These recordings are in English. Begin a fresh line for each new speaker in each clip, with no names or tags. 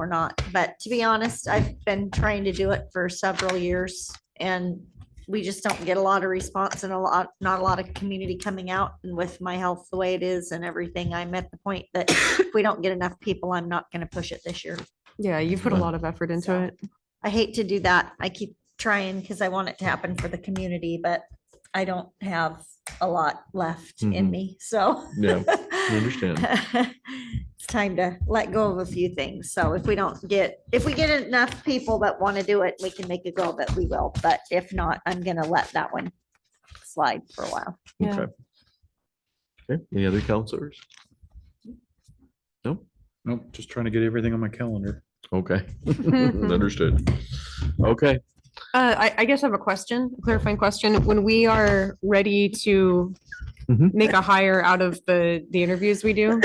or not. But to be honest, I've been trying to do it for several years and we just don't get a lot of response and a lot, not a lot of community coming out. And with my health the way it is and everything, I'm at the point that if we don't get enough people, I'm not going to push it this year.
Yeah, you put a lot of effort
So-
into it.
I hate to do that. I keep trying because I want it to happen for the community, but I don't have a lot left in
Mhm.
me, so.
Yeah, understand.
It's time to let go of a few things. So if we don't get, if we get enough people that want to do it, we can make a go of it, we will. But if not, I'm gonna let that one slide for a while.
Yeah.
Okay. Okay, any other counselors? No?
Nope, just trying to get everything on my calendar.
Okay, Mm-hmm. understood. Okay,
Uh, I, I guess I have a question, a clarifying question. When we are ready to
Mhm.
make a hire out of the, the interviews we do,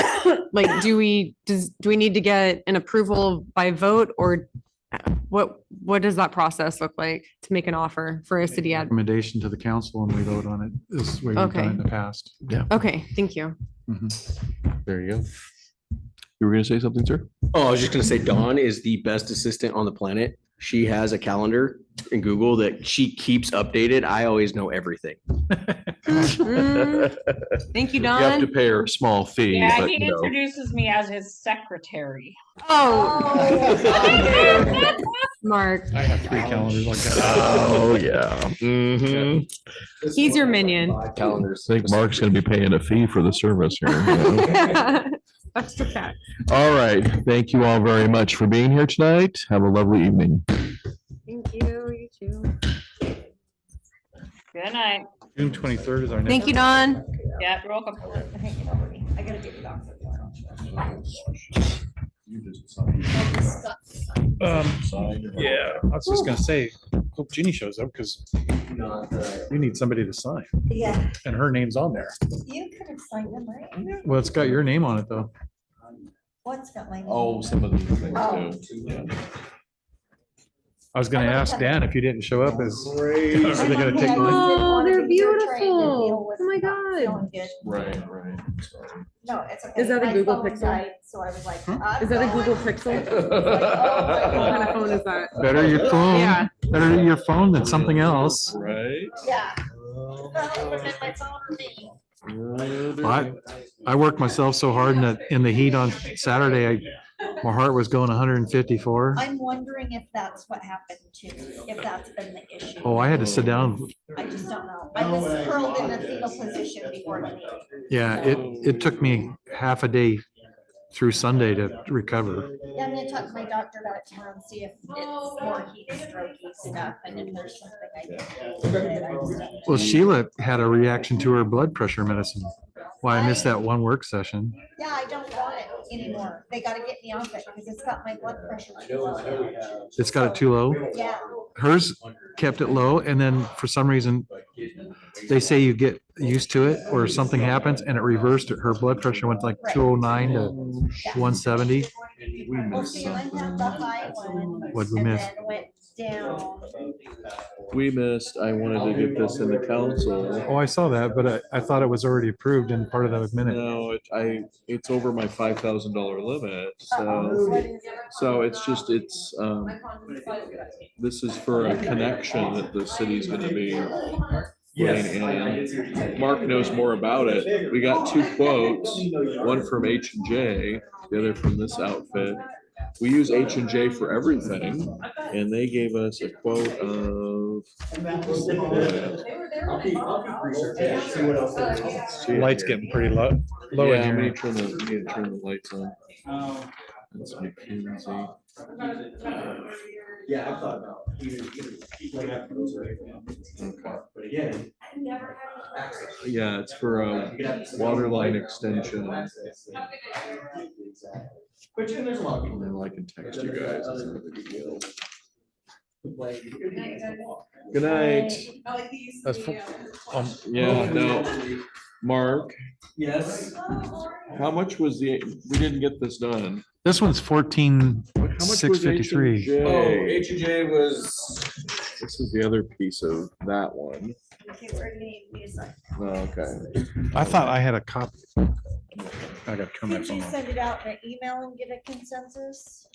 like, do we, does, do we need to get an approval by vote or uh, what, what does that process look like to make an offer for a city ad?
Recommendation to the council and we vote on it. This is what we've done in the past.
Okay, thank you.
Mhm.
there you go. You were gonna say something, sir?
Oh, I was just gonna say Dawn is the best assistant on the planet. She has a calendar in Google that she keeps updated. I always know everything.
Mm,
You
Thank you,
have to
Don.
pay her a small fee.
Yeah,
but,
he
you know.
introduces me as his secretary.
Oh, Mark,
I have three calendars like
Uh,
that.
Oh, yeah. Mhm.
He's your minion.
Calendars.
I think Mark's gonna be paying a fee for the service here. you know?
That's the fact.
All right, thank you all very much for being here tonight. Have a lovely evening.
Thank you, you too.
Good night.
June twenty-third is our next.
Thank you, Don.
Yeah, you're welcome.
Um, Yeah, I was just gonna say, hope Jeannie shows up because you need somebody to sign
Yeah,
and her name's on there.
you could have signed them, right?
Well, it's got your name on it though.
What's Oh. got my?
Oh, some of these
things
I was gonna ask Dan if you didn't show up is, are they gonna take mine?
Oh, they're beautiful. Oh my God.
Right, right.
No, it's okay.
Is that a
My
Google
phone
Pixel?
died, So I was like. I'm
Is that a
going.
Google Pixel? What kind of phone is that?
Better your
Yeah.
phone, better your phone than something else.
Right.
Yeah. That would've been my phone or me.
I, I worked myself so hard in the, in the heat on Saturday, I, my heart was going hundred and fifty-four.
I'm wondering if that's what happened to, if that's been the issue.
Oh, I had to sit down.
I just don't know. I was curled in a fetal position before the meeting.
Yeah, it, it took me half a day through Sunday to recover.
Yeah, I'm gonna talk to my doctor about it tomorrow and see if it's more heat stroke stuff and if there's something I can do. with it. I just don't know.
Well, Sheila had a reaction to her blood pressure medicine. Why I missed that one work session.
Yeah, I don't want it anymore. They gotta get me off it because it's got my blood pressure too low.
It's got it too low.
Yeah,
Hers kept it low and then for some reason, they say you get used to it or something happens and it reversed. Her blood pressure went like two oh nine to one seventy.
well, see, I had the high one.
Hmm. What'd we
and
miss?
then Went down.
We missed, I wanted to get this in the council.
Oh, I saw that, but I, I thought it was already approved in part of the minute.
No, it- I, it's over my five thousand dollar limit,
Uh-oh,
so,
what is it?
so it's just, it's, um, this is for a connection that the city's gonna be putting in. Mark knows more about it. We got two quotes, one from H and J, the other from this outfit. We use H and J for everything, and they gave us a quote of
Light's getting pretty low, low
Yeah,
in
we
here.
need to turn the, we need to turn the lights on. That's McKinsey.
Yeah, I've thought about. Okay. But again.
Yeah, it's for uh, a water line extension. And
Which, and there's a lot of people.
then I can text you guys. It's not a big deal. Good
Good
night.
That's fu- um,
Oh,
Yeah, no, Mark,
Yes.
how much was the, we didn't get this done.
This one's fourteen,
How much was
$6.53.
H&J?
and J was.
This is the other piece of that one.
Okay, we're gonna need music.
Oh, Okay.
I thought I had a copy. I gotta come back
Did
on.
you
that.
send it out in an email and get a consensus?